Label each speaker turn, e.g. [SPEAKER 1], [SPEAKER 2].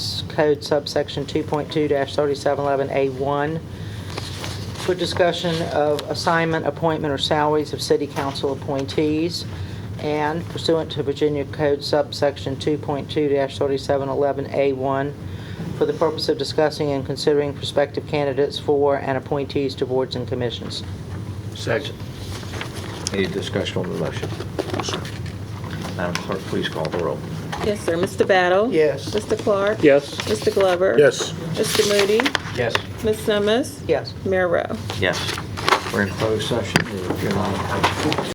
[SPEAKER 1] Code subsection 2.2-3711A1 for discussion of assignment, appointment, or salaries of city council appointees, and pursuant to Virginia Code subsection 2.2-3711A1, for the purpose of discussing and considering prospective candidates for and appointees to boards and commissions.
[SPEAKER 2] Second.
[SPEAKER 3] Any discussion on the motion? Madam Clerk, please call the roll.
[SPEAKER 4] Yes, sir. Mr. Battle?
[SPEAKER 2] Yes.
[SPEAKER 4] Mr. Clark?
[SPEAKER 2] Yes.
[SPEAKER 4] Mr. Glover?
[SPEAKER 2] Yes.
[SPEAKER 4] Mr. Moody?
[SPEAKER 3] Yes.
[SPEAKER 4] Ms. Simmons?
[SPEAKER 1] Yes.
[SPEAKER 4] Mayor Rowe?
[SPEAKER 3] Yes. We're in closed session. If you're not-